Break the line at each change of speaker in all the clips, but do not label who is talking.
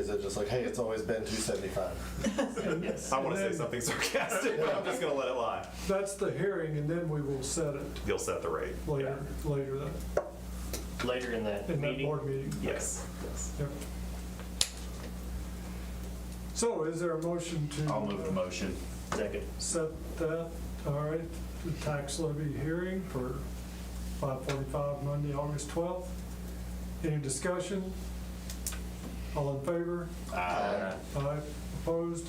it just like, hey, it's always been 275.
Yes.
I want to
And
say
then-
something sarcastic, but I'm just going to let it lie.
That's the hearing, and then we will set it
You'll set the rate.
later, later that,
Later in that
in that
meeting.
board meeting.
Yes. Yes.
Yep. So is there a motion to?
I'll move the motion.
Second.
Set that, all right, the tax levy hearing for 5:45 Monday, August 12th. Any discussion? All in favor?
Aye.
Aye, opposed?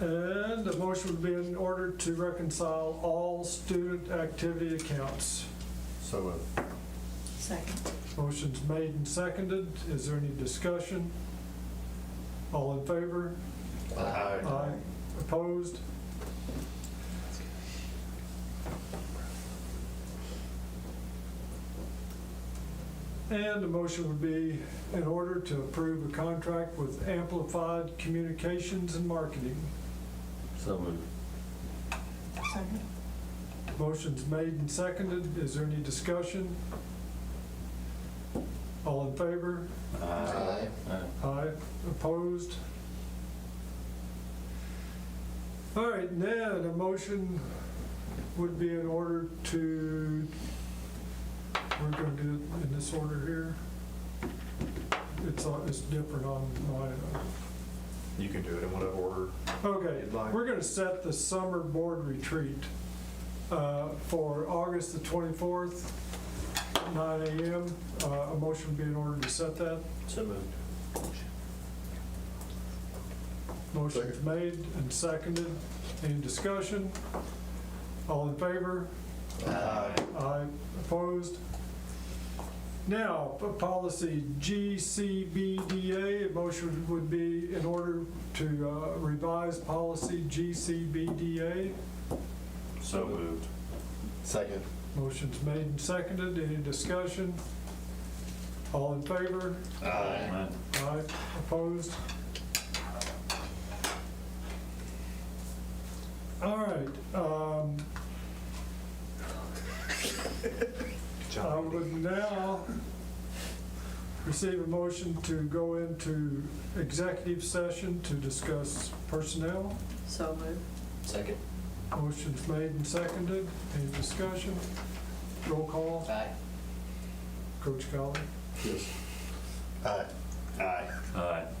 And the motion would be in order to reconcile all student activity accounts.
So uh, moved.
Second.
Motion's made and seconded. Is there any discussion? All in favor?
Aye.
Aye. Opposed? And the motion would be in order to approve a contract with Amplified Communications and Marketing.
So moved.
Second.
Motion's made and seconded. Is there any discussion? All in favor?
Aye.
Aye, opposed? All right, now, a motion would be in order to, we're gonna do it in this order here. It's, on- it's different on my,
You can do it in whatever order.
okay, we're gonna set the summer board retreat uh, for August the 24th, 9 AM. Uh, A motion would be in order to set that.
So moved.
Motion's made and seconded. Any discussion? All in favor? Aye. Opposed? Now, p- policy GCBDA, a motion would be in order to uh, revise policy GCBDA.
So moved.
Second.
Motion's made and seconded. Any discussion? All in favor?
Aye.
Aye, opposed? All right, um, I would um, now receive a motion to go into executive session to discuss personnel.
So moved.
Second.
Motion's made and seconded, any discussion? Roll call,
Aye.
Coach Collins.
Aye.
Aye.